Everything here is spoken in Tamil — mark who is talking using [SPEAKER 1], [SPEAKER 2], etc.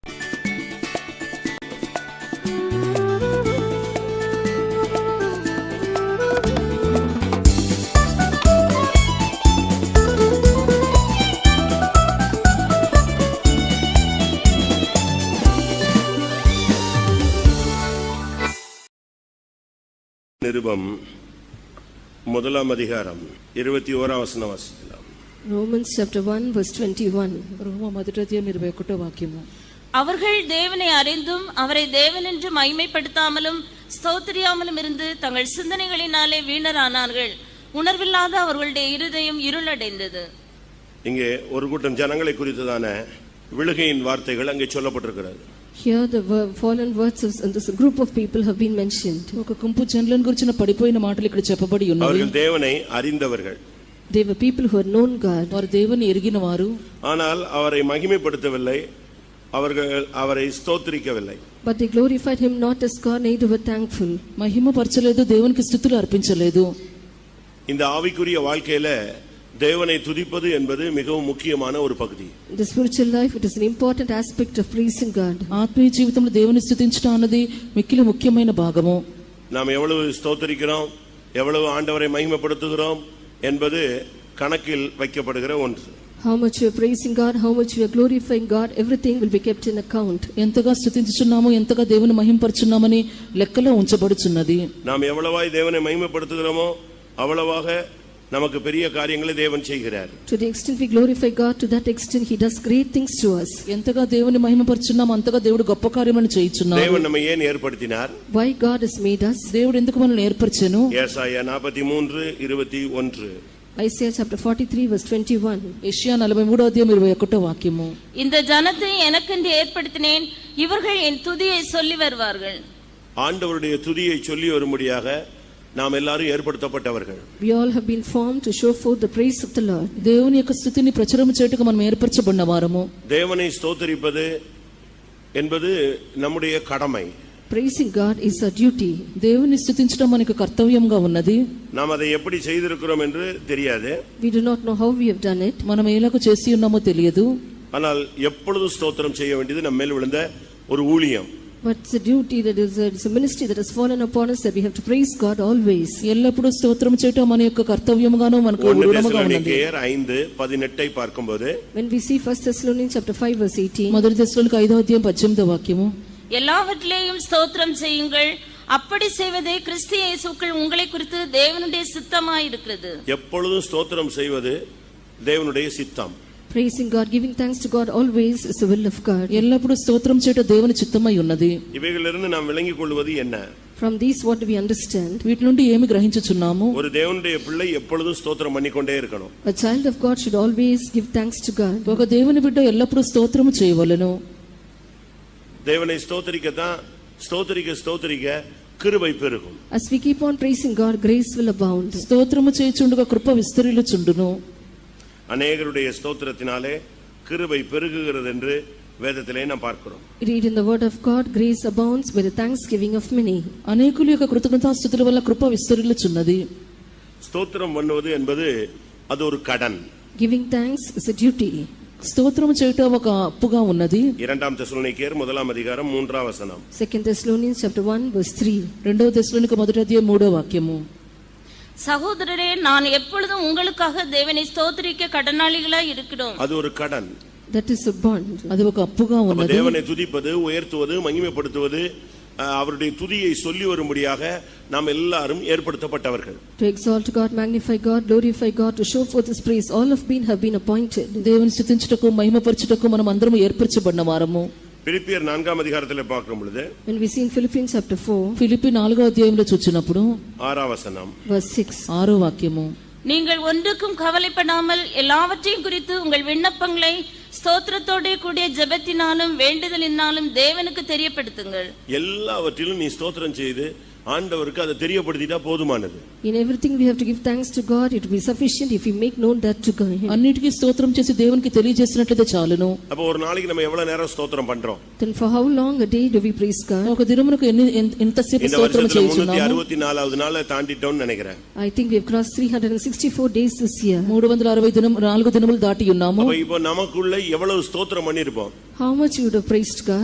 [SPEAKER 1] நிருபம் முதலாம் அதிகாரம் இருபத்தி ஓராம் வசனம் வாசிக்கலாம்
[SPEAKER 2] Romans chapter 1 verse 21.
[SPEAKER 3] రోమ మొదటి అధ్యాయం ఇరవై ఒకటో వాక్యము
[SPEAKER 4] அவர்கள் தேவனை அறிந்தும் அவரை தேவனென்று மைமைப்படுத்தாமலும் ஸ்தோத்திரியாமலும் இருந்து தங்கள் சிந்தனைகளினாலே வீணரானார்கள் உணர்வில்லாத அவர்களுடைய இருதயம் இருளடைந்தது
[SPEAKER 1] இங்கே ஒரு கூட்டம் ஜனங்களை குறித்ததான விழுகையின் வார்த்தைகள் அங்கே சொல்லப்பட்டிருக்கிறது
[SPEAKER 2] Here the ver- fallen words of and this group of people have been mentioned.
[SPEAKER 3] ఒక గుంపు జనులను గురించిన పడిపోయిన మాటలు ఇక్కడ చెప్పబడి ఉన్నవి
[SPEAKER 1] அவர்கள் தேவனை அறிந்தவர்கள்
[SPEAKER 2] They were people who had known God,
[SPEAKER 3] వారు దేవుని ఎరిగిన వారు
[SPEAKER 1] ஆனால் அவரை மகிமைப்படுத்தவில்லை அவர்கள் அவரை ஸ்தோத்திரிக்கவில்லை
[SPEAKER 2] but they glorified him not as God, neither were thankful.
[SPEAKER 3] మహిమపరచలేదు దేవునికి స్థుతులు అర్పించలేదు
[SPEAKER 1] இந்த ஆவிக்குரிய வாழ்க்கையில தேவனை துதிப்பது என்பது மிகவும் முக்கியமான ஒரு பகுதி
[SPEAKER 2] In the spiritual life, it is an important aspect of praising God.
[SPEAKER 3] ఆత్మీయ జీవితంలో దేవుని స్థుతించడం అన్నది మిక్కిలి ముఖ్యమైన భాగము
[SPEAKER 1] நாம் எவ்வளவு ஸ்தோத்திரிக்கிறோம் எவ்வளவு ஆண்டவரை மகிமைப்படுத்துகிறோம் என்பது கணக்கில் வைக்கப்படுகிற ஒன்று
[SPEAKER 2] How much we are praising God, how much we are glorifying God, everything will be kept in account.
[SPEAKER 3] ఎంతగా స్థుతించుచున్నాము ఎంతగా దేవుని మహింపరచున్నామని లెక్కలో ఉంచబడుచున్నది
[SPEAKER 1] நாம் எவ்வளவாய் தேவனை மகிமைப்படுத்துகிறோமோ அவ்வளவாக நமக்கு பெரிய காரியங்களை தேவன் செய்கிறார்
[SPEAKER 2] To the extent we glorify God, to that extent He does great things to us.
[SPEAKER 3] ఎంతగా దేవుని మహిమపరచున్నాము అంతగా దేవుడు గొప్ప కార్యములను చేయుచున్నాడు
[SPEAKER 1] தேவன் நம்மை ஏன் ஏற்படுத்தினார்
[SPEAKER 2] Why God has made us?
[SPEAKER 3] దేవుడు ఎందుకు మనల్ని ఏర్పరిచాను
[SPEAKER 1] ஏசாயா நாற்பத்தி மூன்று இருபத்தி ஒன்று
[SPEAKER 2] Isaiah chapter 43 verse 21.
[SPEAKER 3] ఏషియా నలభై మూడో అధ్యాయం ఇరవై ఒకటో వాక్యము
[SPEAKER 4] இந்த ஜனத்தை எனக்கென்று ஏற்படுத்தினேன் இவர்கள் என் துதியை சொல்லி வருவார்கள்
[SPEAKER 1] ஆண்டவருடைய துதியை சொல்லி வரும்படியாக நாம் எல்லாரும் ஏற்படுத்தப்பட்டவர்கள்
[SPEAKER 2] We all have been formed to show forth the praise of the Lord.
[SPEAKER 3] దేవుని యొక్క స్థుతిని ప్రచురం చేయుటకు మనం ఏర్పరచబడిన వారము
[SPEAKER 1] தேவனை ஸ்தோத்தரிப்பது என்பது நம்முடைய கடமை
[SPEAKER 2] Praising God is our duty.
[SPEAKER 3] దేవుని స్థుతించడం మనకు కర్తవ్యంగా ఉన్నది
[SPEAKER 1] நாம் அதை எப்படி செய்திருக்கிறோம் என்று தெரியாது
[SPEAKER 2] We do not know how we have done it,
[SPEAKER 3] మనం ఎలాగ చేసి ఉన్నామో తెలియదు
[SPEAKER 1] ஆனால் எப்பொழுதும் ஸ்தோத்திரம் செய்ய வேண்டியது நம்ம மேல் விழுந்த ஒரு ஊழியம்
[SPEAKER 2] but it's a duty that is a, it's a ministry that has fallen upon us that we have to praise God always.
[SPEAKER 3] ఎల్లప్పుడూ స్తోత్రం చేయటం మన యొక్క కర్తవ్యంగానూ మనకు
[SPEAKER 1] ஒன்று
[SPEAKER 3] ఊరుడముగా ఉన్నది
[SPEAKER 1] தேசலோனிக்கேயர் ஐந்து பதினெட்டை பார்க்கும்போது
[SPEAKER 2] When we see 1 Thessalonians chapter 5 verse 18,
[SPEAKER 3] మొదటి దశలోనికి ఐదో అధ్యాయం పద్దెనిమిదో వాక్యము
[SPEAKER 4] எல்லாவற்றிலேயும் ஸ்தோத்திரம் செய்யுங்கள் அப்படி செய்வதே கிறிஸ்து இயேசுக்குள் உங்களை குறித்து தேவனுடைய சித்தமாயிருக்கிறது
[SPEAKER 1] எப்பொழுதும் ஸ்தோத்திரம் செய்வது தேவனுடைய சித்தம்
[SPEAKER 2] praising God, giving thanks to God always is the will of God.
[SPEAKER 3] ఎల్లప్పుడూ స్తోత్రం చేయటం దేవుని చిత్తమై ఉన్నది
[SPEAKER 1] இவைகளிலிருந்து நாம் விளங்கிக் கொள்வது என்ன
[SPEAKER 2] From these what do we understand?
[SPEAKER 3] వీటి నుండి ఏమి గ్రహించుచున్నాము
[SPEAKER 1] ஒரு தேவனுடைய பிள்ளை எப்பொழுதும் ஸ்தோத்திரம் பண்ணிக்கொண்டே இருக்கணும்
[SPEAKER 2] A child of God should always give thanks to God.
[SPEAKER 3] ఒక దేవుని బిడ్డ ఎల్లప్పుడూ స్తోత్రము చేయవలెను
[SPEAKER 1] தேவனை ஸ்தோத்தரிக்கத்தான் ஸ்தோத்தரிக்க ஸ்தோத்தரிக்க கிருபை பெருகும்
[SPEAKER 2] As we keep on praising God, grace will abound.
[SPEAKER 3] స్తోత్రము చేయుచుండగా కృప విస్తరిల్లుచుండును
[SPEAKER 1] அநேகருடைய ஸ்தோத்திரத்தினாலே கிருபை பெருகுகிறது என்று வேதத்திலே நாம் பார்க்கிறோம்
[SPEAKER 2] We read in the word of God, grace abounds by the thanksgiving of many.
[SPEAKER 3] అనేకుల యొక్క కృతజ్ఞతాస్థుతుల వల్ల కృప విస్తరిల్లుచున్నది
[SPEAKER 1] ஸ்தோத்திரம் பண்ணுவது என்பது அது ஒரு கடன்
[SPEAKER 2] Giving thanks is a duty.
[SPEAKER 3] స్తోత్రము చేయటం ఒక అప్పుగా ఉన్నది
[SPEAKER 1] இரண்டாம் தெசலோனிக்கேயர் முதலாம் அதிகாரம் மூன்றாம் வசனம்
[SPEAKER 2] 2 Thessalonians chapter 1 verse 3.
[SPEAKER 3] రెండవ దశలోనికి మొదటి అధ్యాయం మూడో వాక్యము
[SPEAKER 4] சகோதரரே நான் எப்பொழுதும் உங்களுக்காக தேவனை ஸ்தోత్రிக்க கடனாளிகளாய் இருக்கிறோம்
[SPEAKER 1] அது ஒரு கடன்
[SPEAKER 2] That is a bond.
[SPEAKER 3] అది ఒక అప్పుగా
[SPEAKER 1] அப்ப
[SPEAKER 3] ఉన్నది
[SPEAKER 1] தேவனை துதிப்பது உயர்த்துவது மகிமைப்படுத்துவது அஹ், அவருடைய துதியை சொல்லி வரும்படியாக நாம் எல்லாரும் ஏற்படுத்தப்பட்டவர்கள்
[SPEAKER 2] To exalt God, magnify God, glorify God, to show forth His praise, all have been have been appointed.
[SPEAKER 3] దేవుని స్థుతించుటకు మహిమపరచుటకు మనం అందరం ఏర్పరచబడిన వారము
[SPEAKER 1] பிரிப்பியர் நான்காம் அதிகாரத்தில் பார்க்கும் பொழுது
[SPEAKER 2] When we see in Philippians chapter 4,
[SPEAKER 3] Philippi నాలుగో అధ్యాయంలో చూచినప్పుడు
[SPEAKER 1] ஆறாம் வசனம்
[SPEAKER 2] verse 6,
[SPEAKER 3] ఆరో వాక్యము
[SPEAKER 4] நீங்கள் ஒன்றுக்கும் கவலைப்படாமல் எல்லாவற்றையும் குறித்து உங்கள் விண்ணப்பங்களை ஸ்தோத்திரத்தோடே கூடிய ஜெபத்தினாலும் வேண்டுதலினாலும் தேவனுக்கு தெரியப்படுத்துங்கள்
[SPEAKER 1] எல்லாவற்றிலும் நீ ஸ்தோத்திரம் செய்து ஆண்டவருக்கு அதை தெரியப்படுத்திட்டா போதுமானது
[SPEAKER 2] in everything we have to give thanks to God, it will be sufficient if we make known that to God.
[SPEAKER 3] అన్నిటికీ స్తోత్రం చేసి దేవునికి తెలియజేసినట్లయితే చాలును
[SPEAKER 1] அப்போ ஒரு நாளைக்கு நம்ம எவ்வளவு நேரம் ஸ்தோத்திரம் பண்றோம்
[SPEAKER 2] Then for how long a day do we praise God?
[SPEAKER 3] ఒక దినమునకు ఎన్ని ఎంత- ఎంతసేపు
[SPEAKER 1] இந்த
[SPEAKER 3] స్తోత్రం
[SPEAKER 1] வருஷத்துல முன்னூத்தி
[SPEAKER 3] చేయుచున్నాము
[SPEAKER 1] அறுபத்தி நாலாவது நாளை தாண்டிட்டோம்னு நினைக்கிறேன்
[SPEAKER 2] I think we have crossed 364 days this year.
[SPEAKER 3] మూడు వందల అరవై దినం నాలుగు దినములు దాటి ఉన్నాము
[SPEAKER 1] அப்ப இப்போ நமக்குள்ள எவ்வளவு ஸ்தோத்திரம் பண்ணிருப்போம்
[SPEAKER 2] How much you would have praised God?